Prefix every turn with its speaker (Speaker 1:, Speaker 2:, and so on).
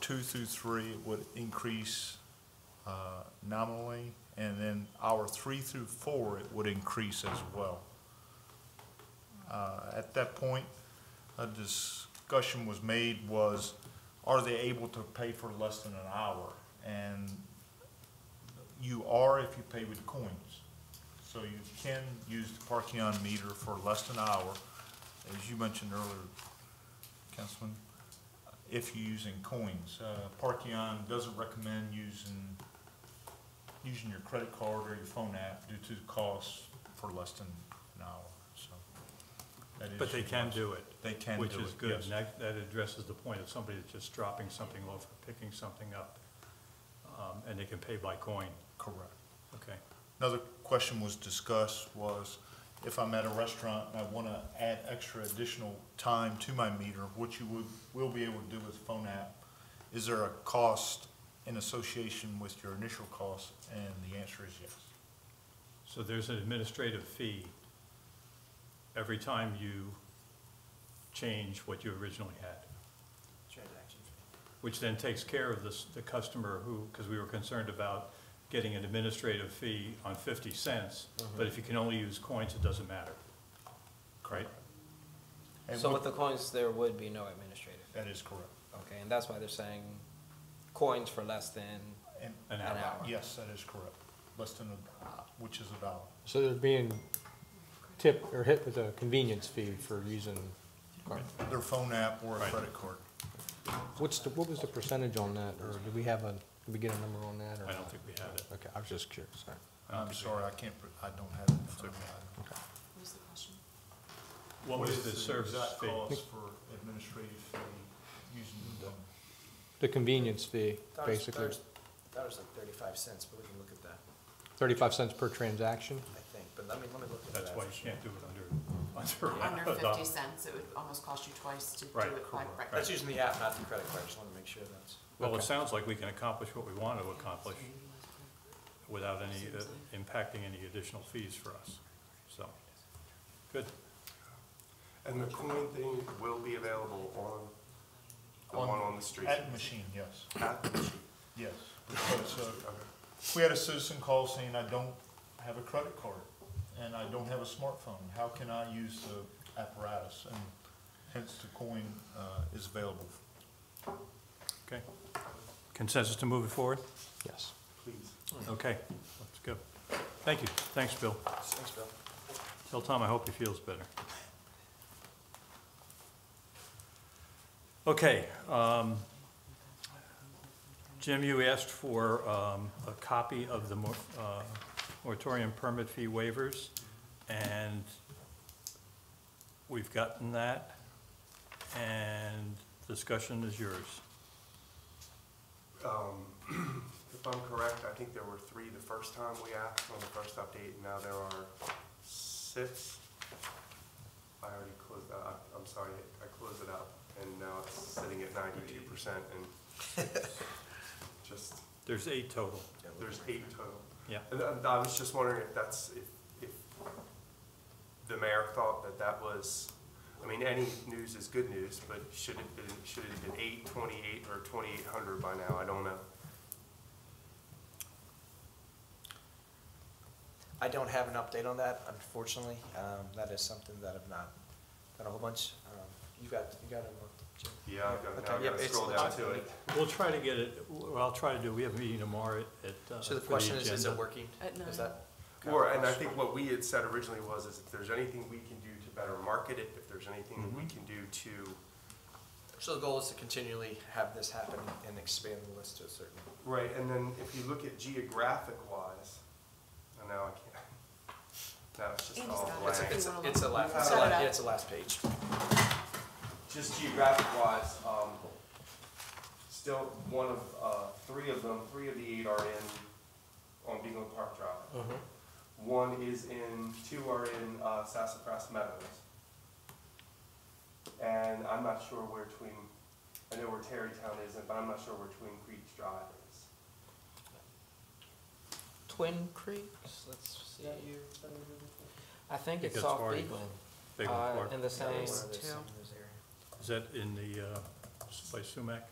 Speaker 1: two through three would increase uh, nominally, and then our three through four, it would increase as well. Uh, At that point, a discussion was made was, are they able to pay for less than an hour? And you are if you pay with coins. So you can use the parking on meter for less than an hour, as you mentioned earlier, Councilman, if you're using coins. Uh, Parkeon doesn't recommend using, using your credit card or your phone app due to the cost for less than an hour, so. that is
Speaker 2: But they
Speaker 1: your
Speaker 2: can
Speaker 1: option.
Speaker 2: do it.
Speaker 1: They can do it,
Speaker 2: Which
Speaker 1: yes.
Speaker 2: is good, and that, that addresses the point of somebody that's just dropping something off, or picking something up, um, and they can pay by coin,
Speaker 1: Correct.
Speaker 2: okay?
Speaker 1: Another question was discussed was if I'm at a restaurant and I want to add extra additional time to my meter, which you would, will be able to do with phone app, is there a cost in association with your initial cost? And the answer is yes.
Speaker 2: So there's an administrative fee every time you change what you originally had,
Speaker 3: transaction fee.
Speaker 2: which then takes care of this, the customer who, because we were concerned about getting an administrative fee on fifty cents,
Speaker 1: Mm-hmm.
Speaker 2: but if you can only use coins, it doesn't matter. Right?
Speaker 1: And
Speaker 3: So
Speaker 1: what-
Speaker 3: with the coins, there would be no administrative, fee.
Speaker 1: That is correct.
Speaker 3: okay, and that's why they're saying coins for less than,
Speaker 1: And,
Speaker 2: An
Speaker 3: An
Speaker 2: hour.
Speaker 3: hour.
Speaker 1: yes, that is correct. Less than a, which is a dollar.
Speaker 4: So they're being tipped or hit with a convenience fee for using,
Speaker 1: Their phone app or a
Speaker 2: Right.
Speaker 1: credit card.
Speaker 4: what's the, what was the percentage on that? Or do we have a, did we get a number on that or?
Speaker 2: I don't
Speaker 4: not?
Speaker 2: think we have it.
Speaker 4: Okay, I was just curious, sorry.
Speaker 1: I'm sorry, I can't, pr- I don't have it. in front of me.
Speaker 5: What was the question?
Speaker 2: What was the service
Speaker 1: exact
Speaker 2: fee?
Speaker 1: cost for administrative fee using the
Speaker 4: The convenience fee,
Speaker 3: that was,
Speaker 4: basically,
Speaker 3: that was like thirty-five cents, but we can look at that,
Speaker 4: thirty-five cents per transaction?
Speaker 3: I think, but let me, let me look at that.
Speaker 2: That's why you can't do it under,
Speaker 5: Under
Speaker 2: under. a
Speaker 5: fifty
Speaker 2: dollar.
Speaker 5: cents, it would almost cost you twice to do
Speaker 2: Oh, Right,
Speaker 5: it by
Speaker 1: correct.
Speaker 3: That's
Speaker 5: breakfast.
Speaker 3: using the app, not the credit card, just wanna make sure that's.
Speaker 2: Well, it
Speaker 4: Okay.
Speaker 2: sounds like we can accomplish what we want to accomplish without any, uh, impacting any additional fees for us, so, good.
Speaker 6: And the coin thing will be available on the
Speaker 1: On-
Speaker 6: one on the street?
Speaker 1: At the machine, yes,
Speaker 6: At the machine?
Speaker 1: yes. Because, uh,
Speaker 6: Okay.
Speaker 1: we had a citizen call saying, I don't have a credit card and I don't have a smartphone. How can I use the apparatus? And hence the coin, uh, is available.
Speaker 2: Okay. Consensus to move it forward?
Speaker 4: Yes.
Speaker 6: Please.
Speaker 2: Okay, that's good. Thank you. Thanks, Bill.
Speaker 3: Thanks, Bill.
Speaker 2: Tell Tom I hope he feels better. Okay, um, Jim, you asked for, um, a copy of the mor- uh, moratorium permit fee waivers, and we've gotten that, and discussion is yours.
Speaker 6: Um, If I'm correct, I think there were three the first time we asked on the first update, and now there are six. I already closed that, up. I'm sorry, I closed it out, and now it's sitting at ninety-two percent, and just,
Speaker 2: There's eight total,
Speaker 6: there's eight total.
Speaker 2: yeah.
Speaker 6: And I- I was just wondering if that's, if, if the mayor thought that that was, I mean, any news is good news, but should it been, should it have been eight, twenty-eight, or twenty-eight hundred by now? I don't know.
Speaker 3: I don't have an update on that, unfortunately, um, that is something that I've not, done a whole bunch, um, you got, you got it, Jim?
Speaker 6: Yeah, I've got, now
Speaker 3: Okay,
Speaker 6: I've
Speaker 3: yeah,
Speaker 6: got to
Speaker 3: it's-
Speaker 6: scroll
Speaker 3: it's-
Speaker 6: down to it.
Speaker 2: We'll try to get it, well, I'll try to do, we have a meeting tomorrow at, uh,
Speaker 3: So the
Speaker 2: for
Speaker 3: question is, is it
Speaker 2: agenda.
Speaker 3: working?
Speaker 5: At nine.
Speaker 3: Is that?
Speaker 6: Or, and I think what we had said originally was, is if there's anything we can do to better market it, if there's anything
Speaker 3: Mm-hmm.
Speaker 6: that we
Speaker 2: Mhm.
Speaker 6: can do to,
Speaker 3: So the goal is to continually have this happen and expand the list to a certain.
Speaker 6: right, and then if you look at geographic wise, and now I can't, now it's just
Speaker 5: Andy's
Speaker 6: all
Speaker 5: got it.
Speaker 6: blank.
Speaker 3: It's, a- it's, a- it's a last,
Speaker 6: Set
Speaker 3: it's
Speaker 6: it
Speaker 3: a last,
Speaker 5: up.
Speaker 3: yeah, it's a last page.
Speaker 6: Just geographic wise, um, still one of, uh, three of them, three of the eight are in, on Bingham Park Drive. One is in, two are in, uh, Sassafras Meadows. And I'm not sure where Twin, I know where Terrytown isn't, but I'm not sure where Twin Creek Drive is.
Speaker 3: Twin Creeks, let's see. I
Speaker 2: it's
Speaker 3: think
Speaker 2: Think it's off uh, already- Beagle, Big one.
Speaker 3: the
Speaker 5: same- Those two.
Speaker 2: Is that in the, uh, by Sumac?